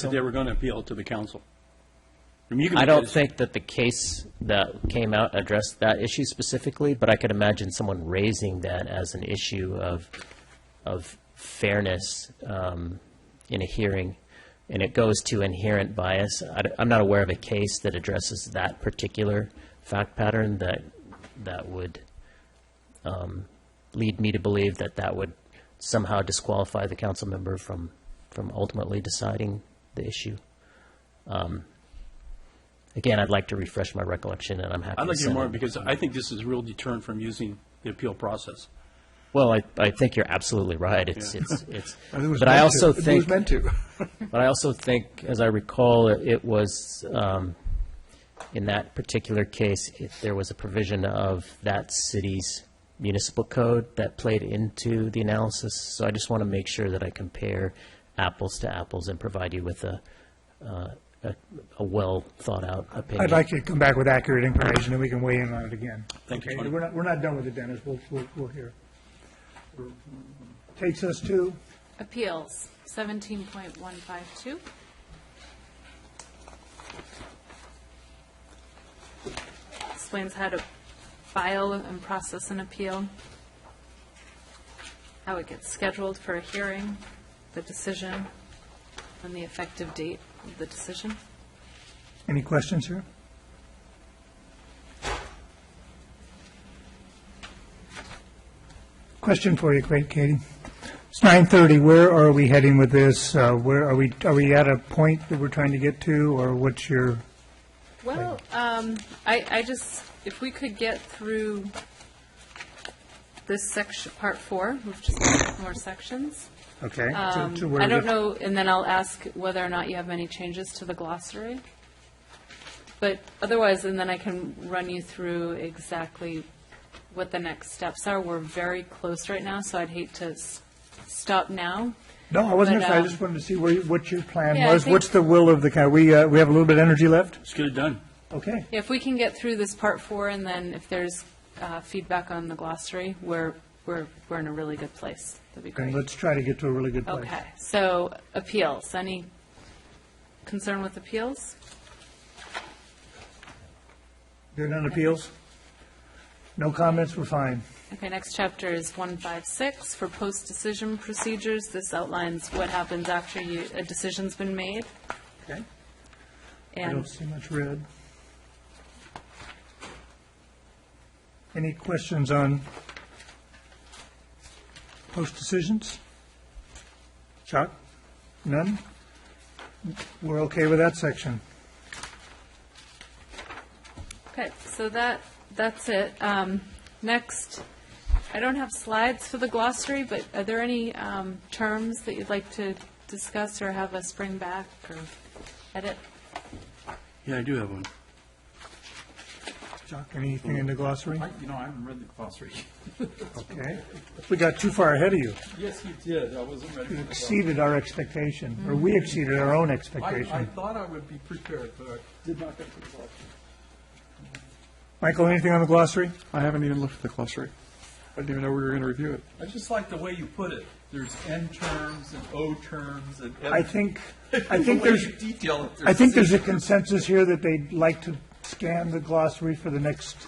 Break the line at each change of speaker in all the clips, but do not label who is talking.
said they were going to appeal to the council. I mean, you can
I
make
don't
that-
think that the case that came out addressed that issue specifically, but I could imagine someone raising that as an issue of, of fairness um, in a hearing, and it goes to inherent bias. I d- I'm not aware of a case that addresses that particular fact pattern that, that would um, lead me to believe that that would somehow disqualify the council member from, from ultimately deciding the issue. Um, Again, I'd like to refresh my recollection, and I'm happy
I'd
to
like to hear
send
more,
it.
because I think this is a real deterrent from using the appeal process.
Well, I, I think you're absolutely right. It's,
Yeah.
it's, it's,
It was
but I
meant
also
to. It
think,
was meant to.
but I also think, as I recall, it- it was, um, in that particular case, it- there was a provision of that city's municipal code that played into the analysis. So I just want to make sure that I compare apples to apples and provide you with a, uh, a, a well-thought-out opinion.
I'd like to come back with accurate information, and we can weigh in on it again.
Thank you,
Okay,
Tony.
We're not, we're not done with it, Dennis, we'll, we'll, we'll hear. Takes us to,
Appeals, seventeen point one five two. Explains how to file and process an appeal, how it gets scheduled for a hearing, the decision, and the effective date of the decision.
any questions here? Question for you, great, Katie. It's nine thirty, where are we heading with this? Uh, where, are we, are we at a point that we're trying to get to, or what's your?
Well, um, I, I just, if we could get through this section, part four, we've just got more sections.
Okay. to-
Um,
to where
I don't
the-
know, and then I'll ask whether or not you have any changes to the glossary. But otherwise, and then I can run you through exactly what the next steps are. We're very close right now, so I'd hate to s- stop now.
No, I wasn't,
But,
interested. I
um,
just wanted to see where, you- what your plan
Yeah, I
was.
think-
What's the will of the, coun- we, uh, we have a little bit of energy left?
Let's get it done.
Okay.
If we can get through this part four, and then if there's uh, feedback on the glossary, we're, we're, we're in a really good place. That'd be
And
great.
let's try to get to a really good place.
Okay, so appeals, any concern with appeals?
There are none appeals? No comments, we're fine.
Okay, next chapter is 156 for post-decision procedures. This outlines what happens after you, a decision's been made.
Okay. I
And
don't see much red. Any questions on post-decisions? Chuck? None? We're okay with that section.
Okay, so that, that's it. Um, Next, I don't have slides for the glossary, but are there any um, terms that you'd like to discuss or have us bring back or edit?
Yeah, I do have one.
Chuck, anything in the glossary?
I- You know, I haven't read the glossary.
Okay. We got too far ahead of you.
Yes, you did. I wasn't ready.
You
for the
exceeded our expectation, or we exceeded our own
glossary. I, I
expectation.
thought I would be prepared, but I did not get to the glossary.
Michael, anything on the glossary?
I haven't even looked at the glossary. I didn't even know we were going to review it.
I just like the way you put it. There's N terms and O terms and.
I think, I think there's,
The way you detail it.
I think there's a consensus here that they'd like to scan the glossary for the next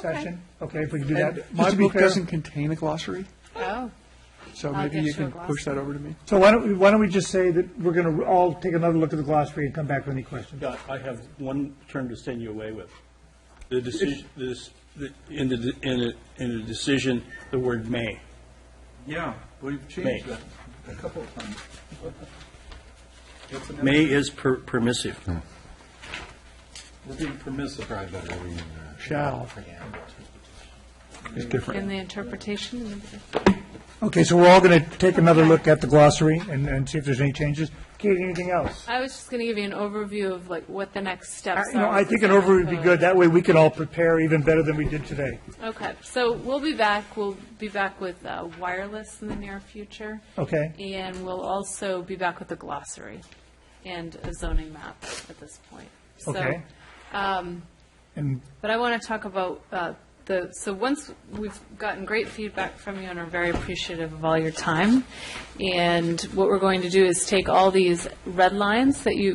session. Okay, if we can do that.
And
Just
my
to be
book
fair.
doesn't contain a glossary,
Oh.
so
I'll
maybe
get
you
you a
can push
glossary.
that over to me.
So why don't, we why don't we just say that we're going to all take another look at the glossary and come back with any questions?
Yeah, I have one term to send you away with. The decision, this, the- in the, in the, in the decision, the word "may."
Yeah, we've changed that a couple of times. It's an-
May is per- permissive.
We're being permissive.
Shall. It's
In
different.
the interpretation?
Okay, so we're all going to take another look at the glossary and, and see if there's any changes. Katie, anything else?
I was just going to give you an overview of like what the next
I-
steps are.
Uh, You know, I
with
think
the
an overview would be
code.
good. That way we can all prepare even better than we did today.
Okay, so we'll be back, we'll be back with uh, wireless in the near future.
Okay.
And we'll also be back with the glossary and a zoning map at this point. So,
Okay. And
But I want to talk about uh, the, so once, we've gotten great feedback from you and are very appreciative of all your time. And what we're going to do is take all these red lines that you,